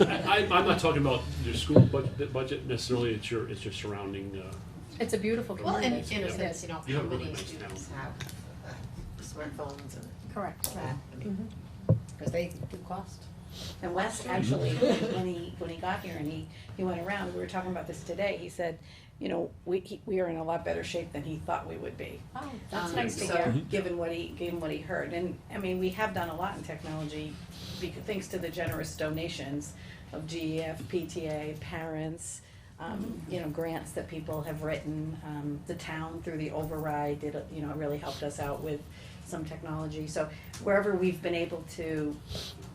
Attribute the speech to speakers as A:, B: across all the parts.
A: I, I'm not talking about your school budget, budget necessarily, it's your, it's your surrounding, uh,
B: It's a beautiful
C: Well,
B: community.
C: and in a sense, you know,
A: You
C: how
A: have really
C: many
A: nice
C: students have uh, smartphones and
B: Correct.
C: that, I mean,
D: Because they do cost.
E: And Wes, actually, when he, when he got here and he, he went around, we were talking about this today, he said, you know, we, he- we are in a lot better shape than he thought we would be.
B: Oh, that's
E: Um,
B: nice to
E: so,
B: hear.
A: Mm-hmm.
E: Given what he, given what he heard, and, I mean, we have done a lot in technology, because, thanks to the generous donations of E GEF, PTA, parents, um,
B: Mm-hmm.
E: you know, grants that people have written, um, the town through the override did, a- you know, really helped us out with some technology, so wherever we've been able to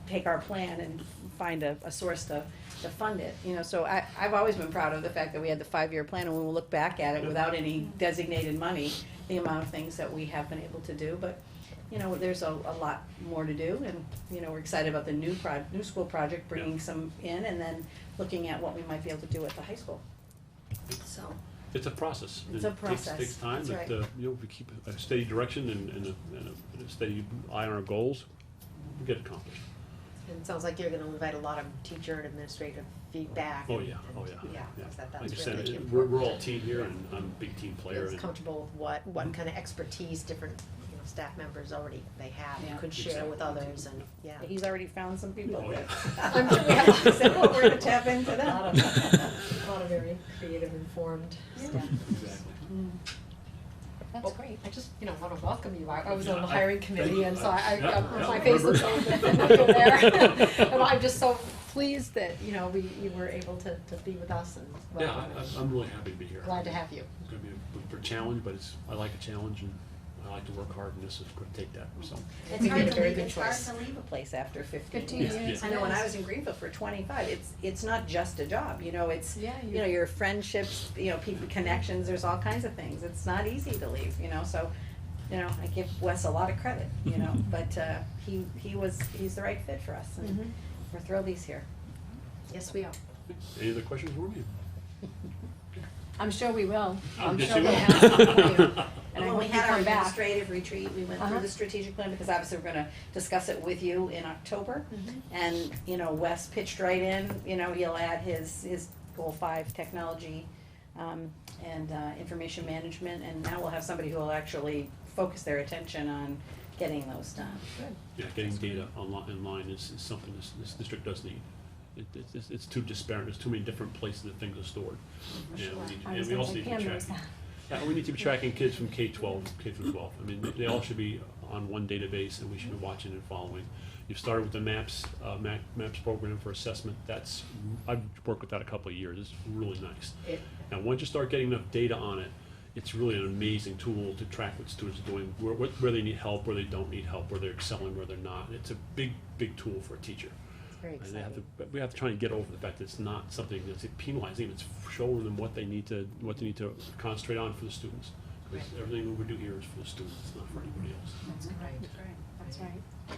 E: take our plan and find a, a source to, to fund it, you know, so I, I've always been proud of the fact that we had the five-year plan, and when we look back at it without any designated money, the amount of things that we have been able to do, but, you know, there's a, a lot more to do, and, you know, we're excited about the new proj, new school project, bringing some in, and then looking at what we might be able to do at the high school. So,
A: it's a process.
E: It's
A: It
E: a
A: takes-
E: process.
A: Takes time,
E: That's
A: but, uh, you know, if we keep a steady direction and, and a, and a- and a steady eye on our goals, we get accomplished.
C: and it sounds like you're gonna invite a lot of teacher and administrative feedback.
A: Oh,
C: and-
A: yeah, oh, yeah.
C: Yeah, because that,
A: Like I
C: that's
A: said,
C: really
A: it- we're, we're
C: important.
A: all team here and I'm a big team player Mm-hmm.
C: It's
A: and
C: comfortable with what, what kind of expertise different, you know, staff members already they have,
E: Yeah.
C: and could share with others and, yeah.
E: he's already found some people
A: Oh, yeah.
E: that, I'm sure we have to, so we're gonna tap into
C: A lot
E: them.
C: of, a lot of very creative, informed staff.
B: That's great.
C: I just, you know, wanna welcome you. I, I was on
A: Yeah,
C: the
A: I-
C: hiring
A: thank
C: committee
A: you.
C: and so I,
A: Yeah,
C: I,
A: yeah,
C: my face looks
A: remember.
C: open and you're there. And I'm just so pleased that, you know, we, you were able to, to be with us and
A: Yeah,
C: welcome.
A: I- I'm, I'm really happy to be here.
C: Glad to have you.
A: It's gonna be a b- b- challenge, but it's, I like a challenge and I like to work hard and this is gonna take that, so.
E: It's
C: You made
E: hard
C: a
E: to
C: very
E: leave,
C: good
E: it's hard
C: choice.
E: to leave a place after fifteen years.
B: Fifteen
A: Yeah,
B: years.
A: yeah.
E: I know when I
B: yes.
E: was in Greenville for twenty-five, it's, it's not just a job, you know, it's,
B: Yeah,
E: you know, your friendships, you know, people, connections, there's all kinds of things, it's not easy to leave, you know, so, you know, I give Wes a lot of credit, you know, but, uh, he, he was, he's the right fit for us, and we're thrilled he's here.
C: Yes, we are.
A: Any other questions for me?
B: I'm sure we will. I'm
A: Yes,
B: sure
A: Oh, you
B: we'll
A: will.
B: have some for you. And I
E: When
B: hope
E: we
B: you
E: had our
B: come back.
E: administrative retreat, we went through
B: Uh-huh.
E: the strategic plan, because obviously we're gonna discuss it with you in October.
B: Mm-hmm.
E: And, you know, Wes pitched right in, you know, he'll add his, his goal five technology, um, and, uh, information management, and now we'll have somebody who will actually focus their attention on getting those done.
A: Yeah, getting data online, online is, is something this, this district does need. It, it's- it's, it's too disparate, there's too many different places that things are stored. And we need,
B: I
A: and
B: was
A: we
B: gonna
A: also
B: say
A: need to
B: Pam
A: be
B: knows
A: tracking,
B: that.
A: yeah, we need to be tracking kids from K twelve, K through twelve. I mean, they all should be on one database and we should be watching and following. You've started with the MAPS, uh, Ma- MAPS program for assessment, that's, I've worked with that a couple of years, it's really nice.
C: It,
A: Now, once you start getting enough data on it, it's really an amazing tool to track what students are doing, where, what- where they need help, where they don't need help, where they're excelling, where they're not. It's a big, big tool for a teacher.
C: it's very
A: And they have to,
C: exciting.
A: but we have to try and get over the fact that it's not something that's penalizing, it's showing them what they need to, what they need to concentrate on for the students. Because everything we do here is for the students, it's not for anybody else.
C: That's great.
B: That's right.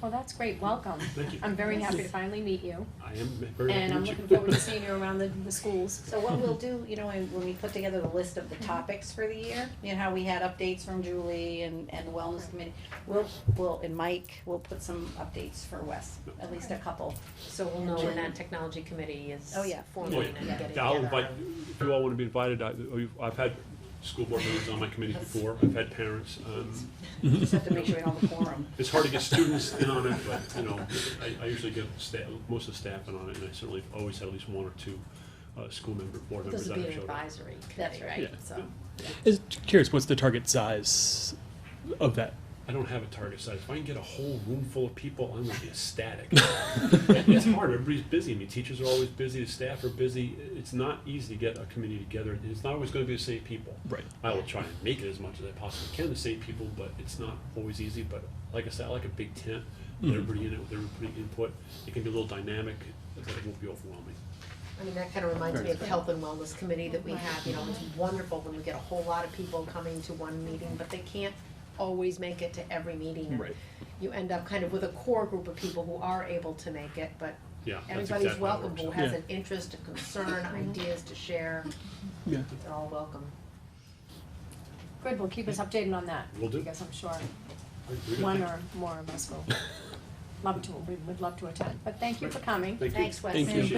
B: Well, that's great. Welcome.
A: Thank you.
B: I'm very happy to finally meet you.
A: I am very happy
B: And I'm
A: with you.
B: looking forward to seeing you around the, the schools.
E: So what we'll do, you know, when when we put together the list of the topics for the year, you know, how we had updates from Julie and, and the wellness committee, we'll, we'll, and Mike, we'll put some updates for Wes, at least a couple.
C: So we'll know when that technology committee is
E: Oh, yeah.
A: Oh,
C: forming
A: yeah.
C: and getting together.
A: Yeah, I'll invite, if you all wanna be invited, I, oh, I've had school board meetings on my committees before, I've had parents, um,
E: Just have to make sure we don't have a quorum.
A: It's hard to get students in on it, but, you know, I, I usually get sta- most of the staff in on it, and I certainly always had at least one or two, uh, school member, board members
C: This
A: that
C: would be
A: have
C: an
A: showed up.
C: advisory committee, right?
E: That's right.
A: Yeah.
C: So,
F: Is curious, what's the target size of that?
A: I don't have a target size, if I can get a whole room full of people, I'm gonna be ecstatic. It's hard, everybody's busy, I mean, teachers are always busy, the staff are busy, it's not easy to get a committee together, and it's not always gonna be the same people.
F: Right.
A: I will try and make it as much as I possibly can to save people, but it's not always easy. But like I said, I like a big tent, with everybody in it, with everybody input. It can be a little dynamic, but it won't be overwhelming.
C: I mean, that kind of reminds me of the health and wellness committee that we have, you know, it's wonderful when we get a whole lot of people coming to one meeting, but they can't always make it to every meeting. and
F: Right.
C: You end up kind of with a core group of people who are able to make it, but
A: Yeah, that's
C: everybody's
A: exactly how it
C: welcome, who
A: works.
C: has
F: Yeah.
C: an interest, a concern, ideas to share,
F: Yeah.
C: they're all welcome.
B: Good, well, keep us updated on that.
A: Will do.
B: Because I'm sure
A: All right, we're gonna
B: one
A: take-
B: or more of us will.
G: love to, we would love to attend, but thank you for coming.
H: Thank you.
B: Thanks, Wes.
E: Thank you.